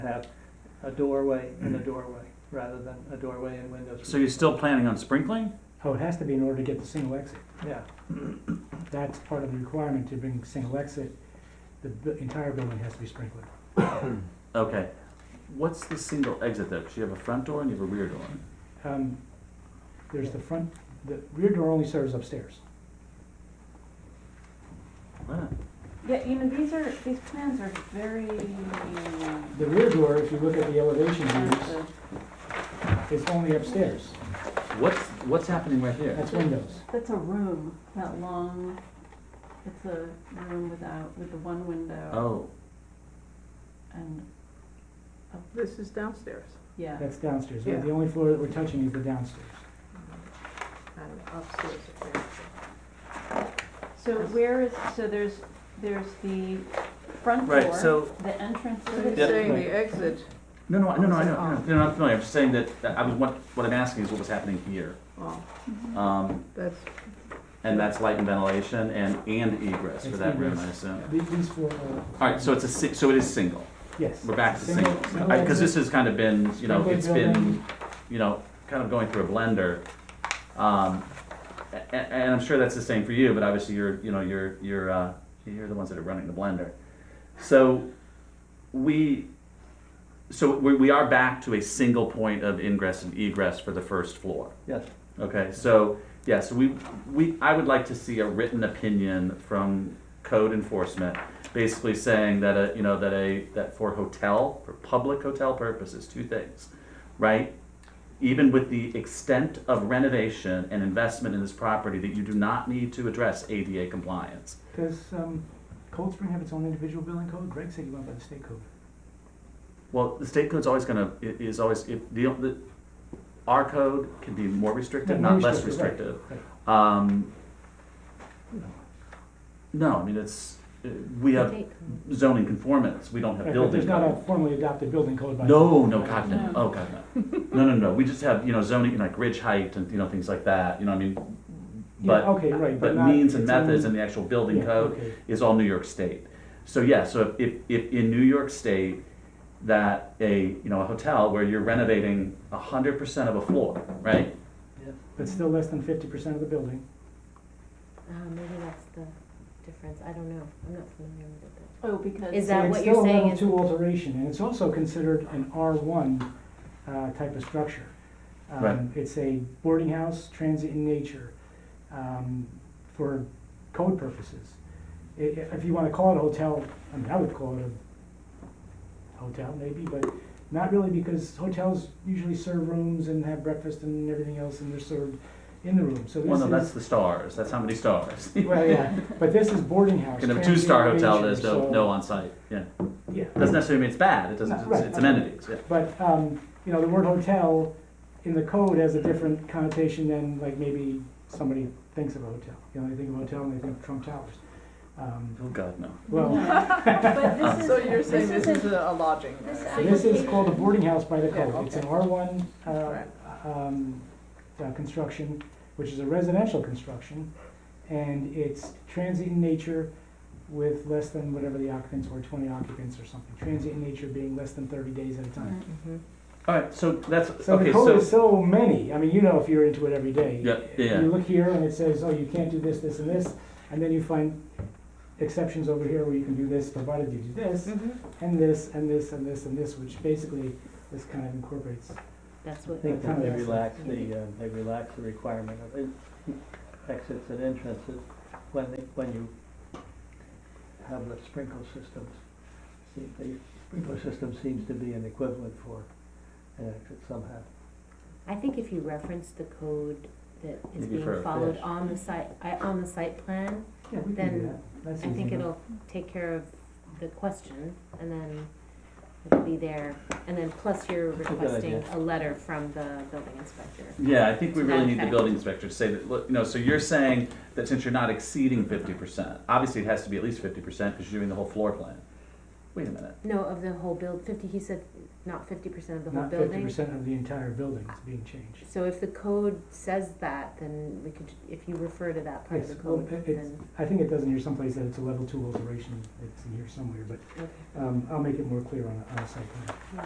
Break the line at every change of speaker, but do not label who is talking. have a doorway and a doorway, rather than a doorway and windows.
So you're still planning on sprinkling?
Oh, it has to be in order to get the single exit.
Yeah,
That's part of the requirement to bring single exit. The bu- entire building has to be sprinkled.
Okay. What's the single exit though? Because you have a front door and you have a rear door.
Um, There's the front, the rear door only serves upstairs.
Wow.
Yeah, you know, these are, these plans are very. um,
The rear door, if you look at the elevation views,
expensive.
is only upstairs.
What's, what's happening right here?
That's windows.
That's a room, that long, it's a room without, with the one window
Oh,
and,
This is downstairs.
yeah.
That's downstairs. The
Yeah.
only floor that we're touching is the downstairs.
And upstairs apparently.
So where is, so there's, there's the front
Right,
door,
so-
the entrance
So
is
he's
Yeah.
saying the exit,
no, no, no, no, I know,
Oh.
no, no, no, I'm familiar. I'm just saying that, that I was, what, what I'm asking is what was happening here.
oh,
Um,
that's,
and that's light and ventilation and, and egress for
It's
that room, I
egress.
assume.
The- These four are.
Alright, so it's a, si- so it is single.
Yes.
We're back to single.
Single- single
Because this
exit.
has kind of been, you know,
Single
it's been,
building.
you know, kind of going through a blender. Um, a- a- and I'm sure that's the same for you, but obviously you're, you know, you're, you're, uh, you're the ones that are running the blender. So we, so we, we are back to a single point of ingress and egress for the first floor.
yes,
Okay, so, yes, we, we, I would like to see a written opinion from code enforcement, basically saying that a, you know, that a, that for hotel, for public hotel purposes, two things, right? Even with the extent of renovation and investment in this property, that you do not need to address ADA compliance.
Does um, Cold Spring have its own individual building code? Greg said he went by the state code.
Well, the state code's always gonna, i- is always, it, the, the, our code can be more restrictive,
No, more
not less
restrictive,
restrictive.
Right.
Um, no, I mean, it's, uh, we have zoning conformance, we don't have
Right, but
building
There's not a
code.
formally adopted building code by.
No, no, God, no,
No.
oh, God, no. No, no, no, we just have, you know, zoning, like ridge height and, you know, things like that, you know, I mean,
Yeah,
but,
okay, right,
but
not-
means and
it's only-
methods and the actual building
yeah,
code
okay.
is all New York State. So yeah, so if, if, if in New York State, that a, you know, a hotel where you're renovating a hundred percent of a floor, right?
yes.
But still less than fifty percent of the building.
Uh, maybe that's the difference, I don't know, I'm not familiar with it. but-
Oh, because.
Is that
And
what you're saying
It's
is-
still a level two alteration, and it's also considered an R one, uh, type of structure. Um,
Right.
It's a boarding house, transient in nature, um, for code purposes. I- i- if you wanna call it a hotel, I mean, I would call it a hotel maybe, but not really because hotels usually serve rooms and have breakfast and everything else, and they're served in the room, so this is.
Well, no, that's the stars, that's how many stars.
Well, yeah, but this is boarding house.
Can have a
transient
two-star hotel,
leisure,
there's no,
so-
no on-site, yeah.
Yeah,
Doesn't necessarily mean it's bad, it doesn't,
No,
it's-
right.
it's amenities, yeah.
but, um, you know, the word hotel in the code has a different connotation than like maybe somebody thinks of a hotel. You know, they think of a hotel and they think of Trump Towers. Um,
Oh, God, no.
Well,
But this is.
so you're saying
this
this
is
is a a lodging.
this
uh,
actually-
this is called a boarding house by the
Yeah,
code. It's an
okay.
R one, uh,
Right.
um, uh, construction, which is a residential construction. And it's transient in nature with less than whatever the occupants were, twenty occupants or something. Transient in nature being less than thirty days at a time.
Mm-hmm.
All right, so that's,
So
okay,
the code
so,
is so many. I mean, you know, if you're into it every day,
Yeah, yeah, yeah.
you look here and it says, "Oh, you can't do this, this, and this," and then you find exceptions over here where you can do this, provided you do this,
Mm-hmm.
Mhm.
and this, and this, and this, and this, which basically this kind of incorporates.
That's
I
what.
think that they relax
Yeah.
the, uh, they relax the requirement of en- exits and entrances when they, when you have the sprinkler systems. See, the sprinkler system seems to be an equivalent for an exit somehow.
I think if you reference the code that is
Maybe for
being
a
followed
fish.
on the site, I, on the site plan,
Yeah, we can do
Then
that. That's
I
easy
think
enough.
it'll take care of the question, and then it'll be there. And then plus you're
That's a good
requesting
idea.
a letter from the building inspector.
yeah, I think we
to that
really need the
effect.
building inspector to say that, look, you know, so you're saying that since you're not exceeding fifty percent, obviously it has to be at least fifty percent because you're doing the whole floor plan. Wait a minute,
No, of the whole build, fifty, he said not fifty percent of the whole
not
building?
fifty percent of the entire building is being changed.
So if the code says that, then we could, if you refer to that part of the
Yes, well,
code,
it- it's-
then,
I think it does in here someplace that it's a level two alteration, it's in here somewhere, but,
okay.
um, I'll make it more clear on a, on a site plan.